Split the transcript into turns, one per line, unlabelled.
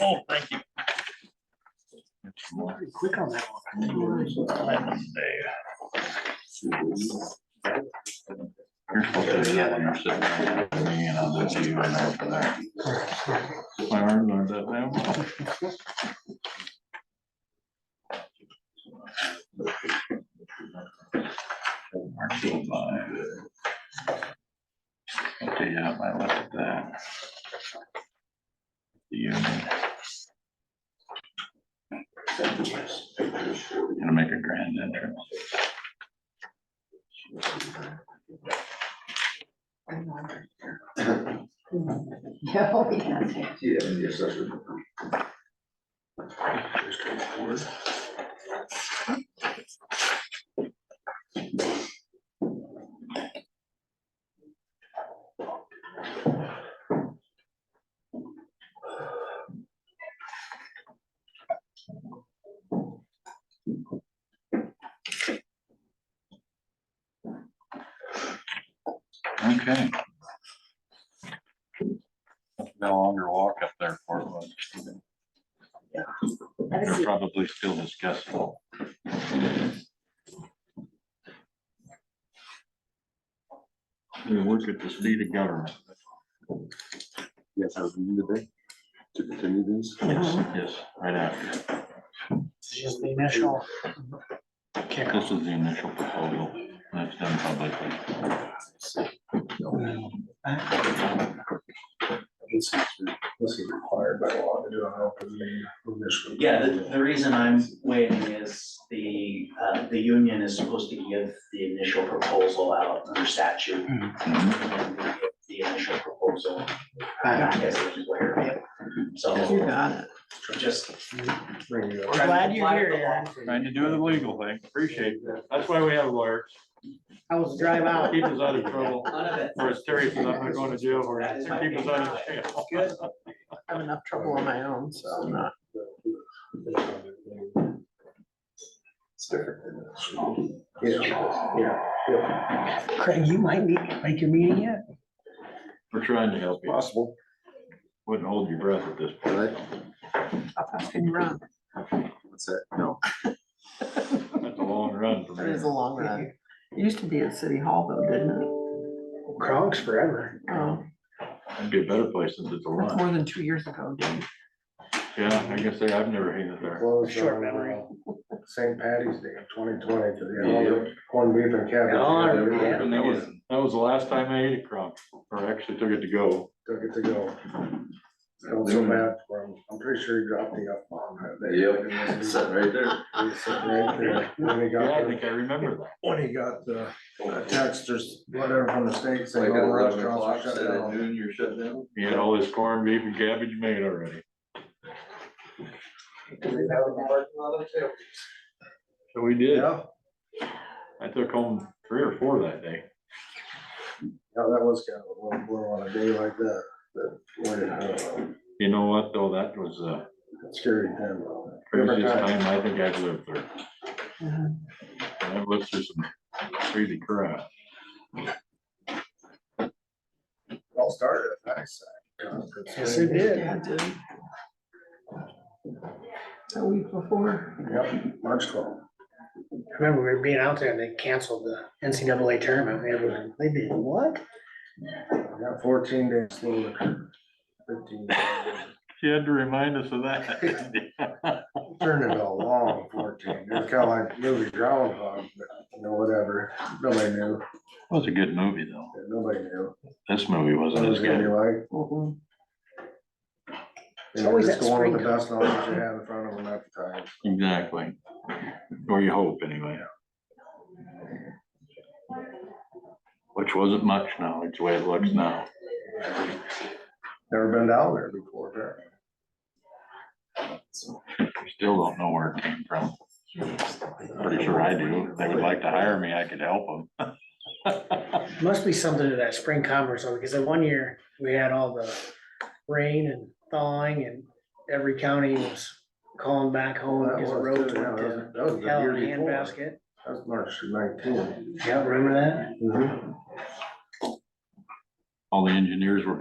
Oh, thank you.
Pretty Quick on that one.
You're supposed to do that when you're sitting there, you know, that's you and that's for that. My arm learned that now. Okay, yeah, I left that. The union. Gonna make a grand entrance.
Yeah,
Oh,
we can.
Yeah, yes, that's. Okay. No longer walk up there for one.
Have a
They're
seat.
probably still discussing. We work at the state of government.
Yes, I was meeting today to continue this.
Yes, yes, right after.
It's Uh-huh. just the initial. kicker.
This is the initial proposal. That's done publicly.
This is required by law to do an open meeting initially.
Yeah, the, the reason I'm waiting is the, uh, the union is supposed to give the initial proposal out under statute.
Mhm.
and we get The initial proposal,
Uh,
I guess, which is later. So
You got it.
just.
We're glad you're here, Aaron.
Trying to do the legal thing. Appreciate that. That's why we have lawyers.
I was drive out.
Keep us out of trouble.
None of it.
Or as Terry says, I'm not going to jail or
That is my
keep us out of jail.
Good.
I have enough trouble on my own, so I'm not.
It's different. than this. Yeah, yeah,
Craig, you might be, make your meeting yet.
We're trying to help you.
possible.
Wouldn't hold your breath at this point.
I can run.
What's that? No.
That's a long run from
It is
here.
a long run. It used to be at City Hall though, didn't it?
Kronk's forever.
Oh,
I'd be a better place since it's a
that's
run.
more than two years ago, dude.
Yeah, I guess they, I've never hated there.
Closed
Short
on,
memory.
uh, St. Patty's Day of twenty twenty, you know, the corned beef and cabbage.
Yeah, I remember
Yeah,
that.
That was, that was the last time I ate a crumb, or actually took it to go.
Took it to go. Felt so bad for him. I'm pretty sure he dropped the F bomb that day. Yep, sitting right there. He was sitting right there. When he got
Yeah, I
there.
think I remember that.
when he got the the text or whatever from the state saying all restaurants are shut down.
you're shut down? He had all this corned beef and cabbage made already. So we did.
Yeah,
I took home three or four that day.
yeah, that was kind of a little blow on a day like that, that, when, uh,
You know what, though? That was the
scary time.
craziest time I think I've lived through.
Mm-hmm.
And I've lived through some crazy crap.
All started at that side.
Yes, it did.
Yeah, I did. A week before.
Yep, March twelfth.
Remember, we were being out there and they canceled the NCAA tournament. Everyone, They did what?
I got fourteen days slow. Fifteen. days.
She had to remind us of that.
Turned into a long fourteen. It was kind of like movie Groundhog, but, you know, whatever. Nobody knew.
Was a good movie, though.
Nobody knew.
This movie
What
wasn't
it
as
was gonna be
good.
like.
Mhm.
You
It's
know,
always
just
that
going with
spring
The best knowledge you have in front of them at the time.
Exactly. Or you hope, anyway. Which wasn't much now, it's the way it looks now.
Never been down there before, apparently.
Still don't know where it came from. Pretty sure I do. They would like to hire me, I could help them.
Must be something to that spring commerce, though, because the one year we had all the rain and thawing and every county was calling back home
That
because the
was
road
good, yeah, that was-
went
that was the
to hell
year
in a
before.
handbasket.
That's March nineteen.
Yeah, remember that?
All the engineers were